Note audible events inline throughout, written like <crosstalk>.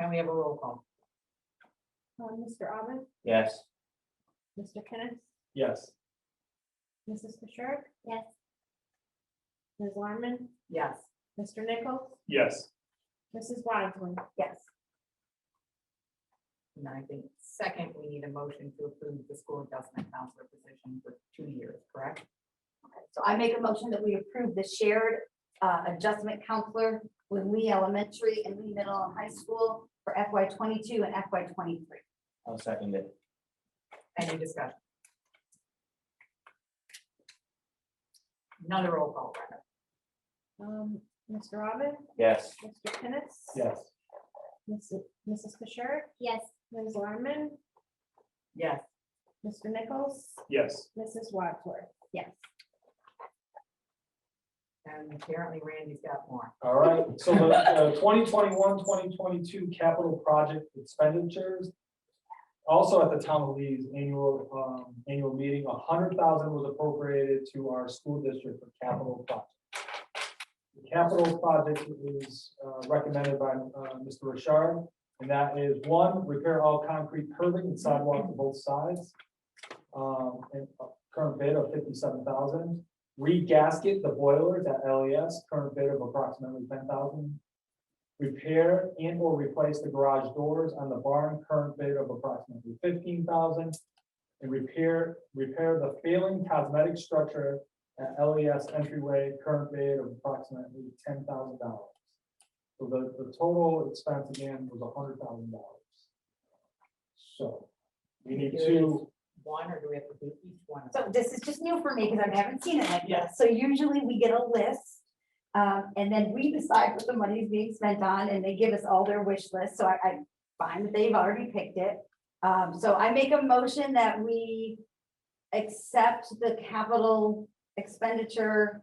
Can we have a roll call? Uh, Mr. Alvin, Yes. Mr. Kenneth, Yes. Mrs. Fisher? Yes. Ms. Larman, Yes. Mr. Nichols, Yes. Mrs. Wadsworth? Yes. And I think second, we need a motion to approve the school adjustment counselor position for two years, correct? So I make a motion that we approve the shared uh, adjustment counselor with Lee Elementary and Lee Middle and High School for FY twenty-two and FY twenty-three. I'll second it. Any discussion? Another roll call, Brenda. Um, Mr. Robin, Yes. Mr. Kenneth? Yes. Mrs. Mrs. Fisher, Yes. Ms. Larman, Yes. Mr. Nichols, Yes. Mrs. Wadsworth? Yes. And apparently Randy's got more. All right, so the 2021, 2022 capital project expenditures. Also at the town of Lee's annual, um, annual meeting, hundred thousand was appropriated to our school district for capital projects. The Capital project is uh, recommended by uh, Mr. Richard, and that is one, repair all concrete curbing and sidewalk to both sides. Um, and a current bid of fifty-seven thousand regasket the boilers at LES, current bid of approximately ten thousand. Repair and or replace the garage doors on the barn, current bid of approximately fifteen thousand. And repair, repair the failing cosmetic structure at LES entryway, current bid of approximately ten thousand dollars. So the, the total expense again was hundred thousand dollars. So, we need Here it to. is. One, or do we have to do each one? of them? So this is just new for me because I haven't seen it like this. So usually we get a list. um, and then we decide what the money is being spent on and they give us all their wish list. So I, I find that they've already picked it. Um, so I make a motion that we accept the capital expenditure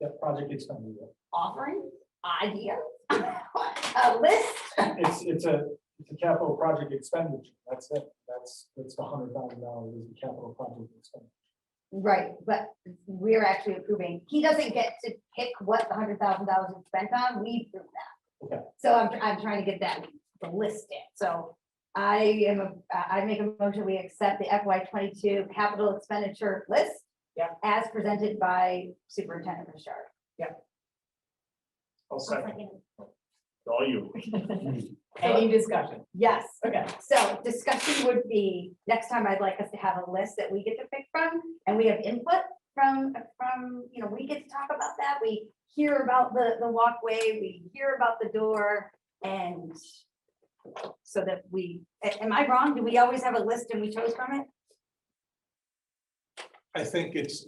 That project expenditure. offering, idea, <laughs> a list. It's, it's a, it's a capital project expenditure, that's it, that's, that's the hundred thousand dollars is the capital project expenditure. Right, but we're actually approving, he doesn't get to pick what the hundred thousand dollars is spent on, we approve that. Okay. So I'm, I'm trying to get that, the list in, so I am, a- I I make a motion, we accept the FY twenty-two capital expenditure list. Yeah. As presented by Superintendent Richard. I'll you. Any discussion? Yes. Okay. So discussion would be, next time I'd like us to have a list that we get to pick from, and we have input from, from, you know, we get to talk about that, we hear about the, the walkway, we hear about the door, and so that we, a- am I wrong? Do we always have a list and we chose from it? I think it's,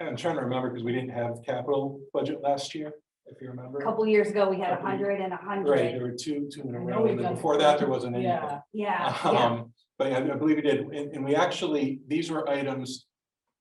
I'm trying to remember because we didn't have capital budget last year, if you remember. A couple years ago, we had a Couple. hundred and a Right, hundred, there were two, two in a I know row, we've and then done- before that, there wasn't any. Yeah, yeah, yeah, <laughs> Um, But I I believe we did, and, and we actually, these were items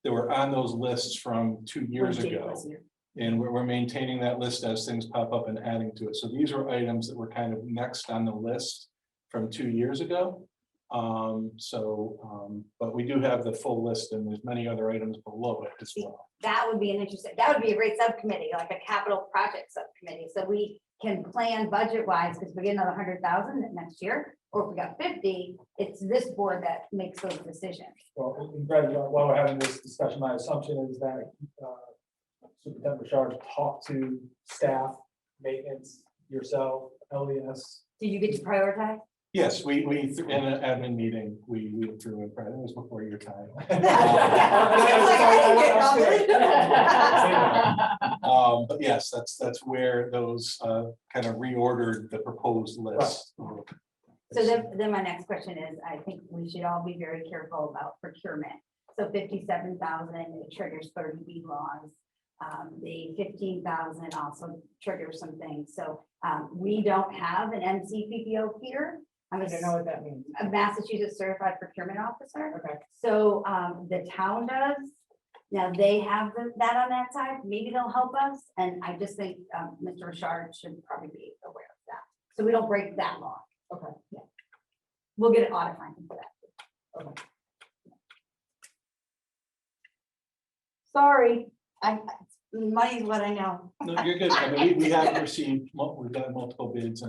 that were on those lists from two years Jake ago. was here. And we're, we're maintaining that list as things pop up and adding to it. So these are items that were kind of next on the list from two years ago. Um, so, um, but we do have the full list and there's many other items below it as well. that would be an interesting, that would be a great subcommittee, like a capital project subcommittee, so we can plan budget wise, because we get another hundred thousand next year, or if we got fifty, it's this board that makes those decisions. Well, and Greg, while we're having this discussion, my assumption is that uh, Superintendent Richard talked to staff, maintenance, yourself, E LES. Did you get to prioritize? Yes, we, we, in an admin meeting, we, we <laughs> went <laughs> through it, but it was before your time. <laughs> Um, but yes, that's, that's where those, uh, kind of reordered the proposed list. So then, then my next question is, I think we should all be very careful about procurement. So fifty-seven thousand, it triggers thirty B laws. Um, the fifteen thousand also triggers some things. So, um, we don't have an MCPPO here. I'm I a don't know what that means. a Massachusetts Certified Procurement Officer. Okay. So um, the town does. Now they have the- that on that side. Maybe they'll help us. And I just think um, Mr. Richard should probably be aware of that. So we don't break that law. Okay. Yeah. We'll get an audit finding for that. Okay. Sorry, I, I- money's what I know. No, you're good. I mean, we, we have received, mul- we've got multiple bids and